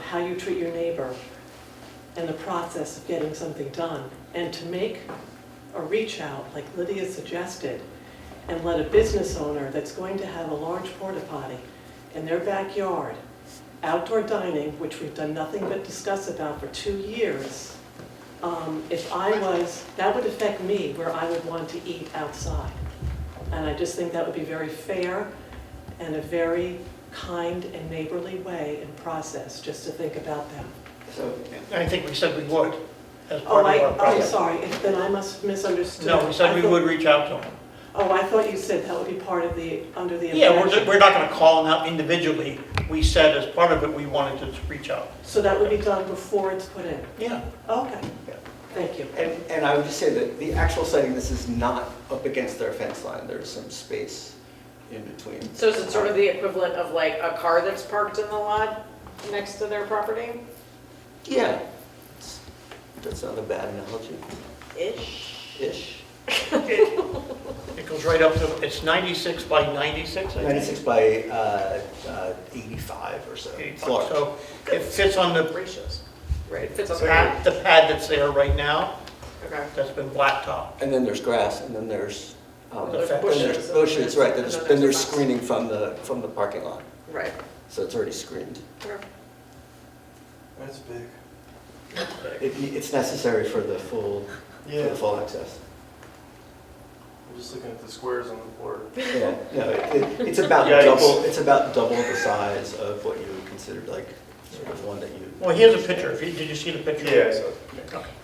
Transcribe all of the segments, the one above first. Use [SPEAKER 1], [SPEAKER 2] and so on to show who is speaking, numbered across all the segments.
[SPEAKER 1] how you treat your neighbor and the process of getting something done. And to make a reach out, like Lydia suggested, and let a business owner that's going to have a large porta potty in their backyard, outdoor dining, which we've done nothing but discuss about for two years, um, if I was, that would affect me where I would want to eat outside. And I just think that would be very fair and a very kind and neighborly way and process, just to think about them.
[SPEAKER 2] So,
[SPEAKER 3] I think we said we would, as
[SPEAKER 1] Oh,
[SPEAKER 3] part
[SPEAKER 1] I,
[SPEAKER 3] of our
[SPEAKER 1] I'm
[SPEAKER 3] process.
[SPEAKER 1] sorry, if- then I must have misunderstood.
[SPEAKER 3] No, we said
[SPEAKER 1] I
[SPEAKER 3] we
[SPEAKER 1] thought-
[SPEAKER 3] would reach out to them.
[SPEAKER 1] Oh, I thought you said that would be part of the, under the.
[SPEAKER 3] Yeah, we're,
[SPEAKER 1] impression.
[SPEAKER 3] we're not gonna call them out individually. We said as part of it, we wanted to reach out.
[SPEAKER 1] So that would be done before it's put in?
[SPEAKER 3] Yeah,
[SPEAKER 1] Okay,
[SPEAKER 3] Yeah.
[SPEAKER 1] thank you.
[SPEAKER 2] and, and I would just say that the actual setting, this is not up against their fence line, there's some space in between.
[SPEAKER 4] So is it sort of the equivalent of like a car that's parked in the lot next to their property?
[SPEAKER 2] Yeah, It's- that's not a bad analogy-ish.
[SPEAKER 4] Ish.
[SPEAKER 3] it goes right up to, it's 96 by 96, I think.
[SPEAKER 2] 96 by uh, uh, 85 or so. It's large.
[SPEAKER 3] So it fits on the,
[SPEAKER 4] Ratios. Right, it fits on the
[SPEAKER 3] pad-
[SPEAKER 4] map.
[SPEAKER 3] the pad that's there right now,
[SPEAKER 4] Okay.
[SPEAKER 3] that's been blacktop.
[SPEAKER 2] And then there's grass, and then there's, um,
[SPEAKER 3] There's
[SPEAKER 2] then
[SPEAKER 4] bushes,
[SPEAKER 2] there's
[SPEAKER 4] and
[SPEAKER 2] bushes, right, then
[SPEAKER 4] then
[SPEAKER 2] there's-
[SPEAKER 4] there's
[SPEAKER 2] then
[SPEAKER 4] a
[SPEAKER 2] there's
[SPEAKER 4] box.
[SPEAKER 2] screening from the, from the parking lot,
[SPEAKER 4] Right.
[SPEAKER 2] so it's already screened.
[SPEAKER 5] That's big.
[SPEAKER 2] It- It's necessary for the full, for the full access.
[SPEAKER 5] I'm just looking at the squares on the board.
[SPEAKER 2] Yeah, no, it- it- it's about
[SPEAKER 3] Yikes.
[SPEAKER 2] double, it's about double the size of what you would consider like sort of one that you.
[SPEAKER 3] Well, here's a picture. If you- Did you see the picture?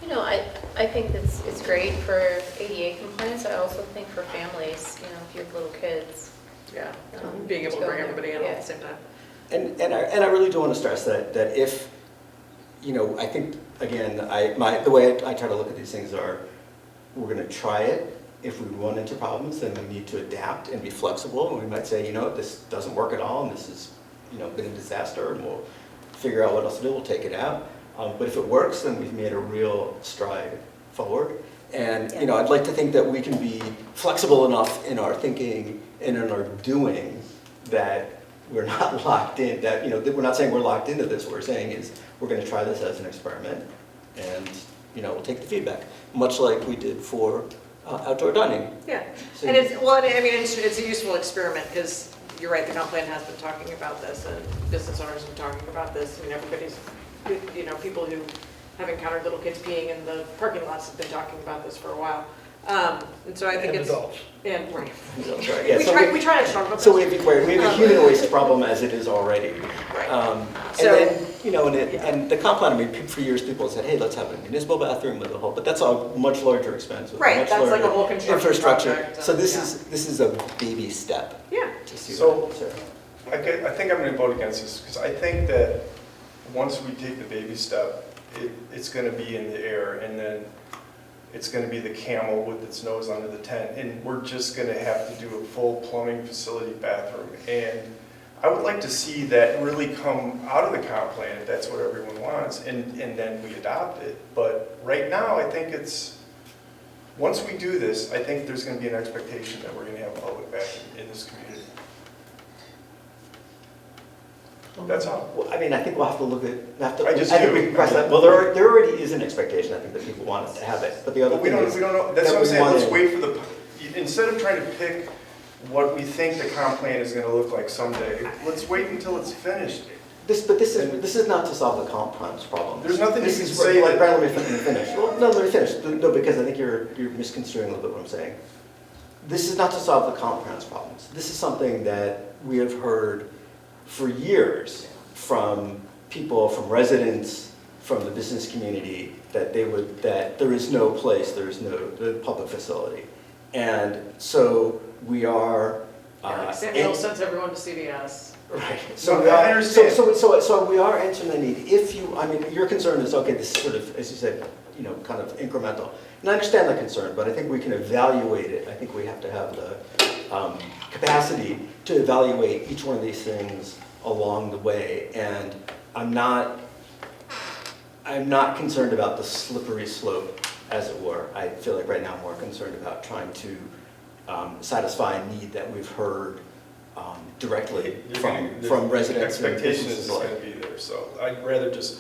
[SPEAKER 6] You know, I, I think that's, it's great for ADA compliance, I also think for families, you know, if you have little kids.
[SPEAKER 4] Yeah,
[SPEAKER 6] um,
[SPEAKER 4] being able to
[SPEAKER 6] go
[SPEAKER 4] bring
[SPEAKER 6] there.
[SPEAKER 4] everybody in all at
[SPEAKER 6] Yeah.
[SPEAKER 4] the same time.
[SPEAKER 2] And, and I, and I really do want to stress that, that if, you know, I think, again, I, my, the way I try to look at these things are, we're gonna try it. If we run into problems, then we need to adapt and be flexible, and we might say, you know, this doesn't work at all, and this has, you know, been a disaster, and we'll figure out what else to do, we'll take it out. Um, but if it works, then we've made a real stride forward. And, you know, I'd like to think that we can be flexible enough in our thinking and in our doing that we're not locked in, that, you know, that we're not saying we're locked into this, what we're saying is, we're gonna try this as an experiment, and, you know, we'll take the feedback, much like we did for uh, outdoor dining.
[SPEAKER 4] Yeah,
[SPEAKER 2] So
[SPEAKER 4] and
[SPEAKER 2] you-
[SPEAKER 4] it's, well, I mean, it's, it's a useful experiment, because you're right, the comp plan has been talking about this, and business owners have been talking about this, and everybody's, you know, people who have encountered little kids peeing in the parking lots have been talking about this for a while. Um, And so I think
[SPEAKER 3] And
[SPEAKER 4] it's.
[SPEAKER 3] adults.
[SPEAKER 4] And, right.
[SPEAKER 2] So, sorry, yeah,
[SPEAKER 4] We
[SPEAKER 2] so
[SPEAKER 4] try, we try to talk about this.
[SPEAKER 2] So we have, right, we have a human waste problem as it is already.
[SPEAKER 4] Right.
[SPEAKER 2] Um, And
[SPEAKER 4] So-
[SPEAKER 2] then, you know, and it, and the comp plan, I mean, pe- for years, people said, hey, let's have a municipal bathroom with a whole, but that's a much larger expense with a
[SPEAKER 4] Right,
[SPEAKER 2] much
[SPEAKER 4] that's like a
[SPEAKER 2] larger
[SPEAKER 4] whole construction
[SPEAKER 2] Infrastructure,
[SPEAKER 4] project,
[SPEAKER 2] so
[SPEAKER 4] and-
[SPEAKER 2] this
[SPEAKER 4] yeah.
[SPEAKER 2] is, this is a baby step
[SPEAKER 4] Yeah.
[SPEAKER 2] to see.
[SPEAKER 5] So-
[SPEAKER 2] what- sorry.
[SPEAKER 5] I get- I think I'm gonna vote against this, because I think that once we take the baby step, it, it's gonna be in the air, and then it's gonna be the camel with its nose under the tent, and we're just gonna have to do a full plumbing facility bathroom. And I would like to see that really come out of the comp plan, if that's what everyone wants, and, and then we adopt it. But right now, I think it's, once we do this, I think there's gonna be an expectation that we're gonna have public bathroom in this community. That's all.
[SPEAKER 2] Well, I mean, I think we'll have to look at, we have to.
[SPEAKER 5] I just
[SPEAKER 2] think
[SPEAKER 5] do.
[SPEAKER 2] we can press that, well, there, are- there already is an expectation, I think, that people want us to have it, but the other
[SPEAKER 5] But we
[SPEAKER 2] thing
[SPEAKER 5] don't,
[SPEAKER 2] is.
[SPEAKER 5] we don't know, that's
[SPEAKER 2] that
[SPEAKER 5] what I'm
[SPEAKER 2] we
[SPEAKER 5] saying, let's
[SPEAKER 2] wanted-
[SPEAKER 5] wait for the, instead of trying to pick what we think the comp plan is gonna look like someday, let's wait until it's finished.
[SPEAKER 2] This, but this is, this is not to solve the comp times problem.
[SPEAKER 5] There's nothing
[SPEAKER 2] This
[SPEAKER 5] you can
[SPEAKER 2] is
[SPEAKER 5] say
[SPEAKER 2] Like,
[SPEAKER 5] that-
[SPEAKER 2] Brian, let me fin- finish. Well, no, let me finish. No, because I think you're, you're misconstruing a little bit what I'm saying. This is not to solve the comp times problems. This is something that we have heard for years from people, from residents, from the business community, that they would, that there is no place, there is no, the public facility. And so we are. uh,
[SPEAKER 4] Yeah, like Sam
[SPEAKER 2] in-
[SPEAKER 4] Hill sends everyone to CVS.
[SPEAKER 2] Right. So
[SPEAKER 5] No,
[SPEAKER 2] we
[SPEAKER 5] I
[SPEAKER 2] are, so,
[SPEAKER 5] understand.
[SPEAKER 2] so, so, so we are answering the need. If you, I mean, your concern is, okay, this is sort of, as you said, you know, kind of incremental. And I understand that concern, but I think we can evaluate it. I think we have to have the, um, capacity to evaluate each one of these things along the way. And I'm not, I'm not concerned about the slippery slope, as it were. I feel like right now I'm more concerned about trying to um, satisfy a need that we've heard um, directly
[SPEAKER 5] You're
[SPEAKER 2] from,
[SPEAKER 5] gonna- the
[SPEAKER 2] from residents. and
[SPEAKER 5] Expectation is it's
[SPEAKER 2] businesses alike.
[SPEAKER 5] gonna be there, so I'd rather just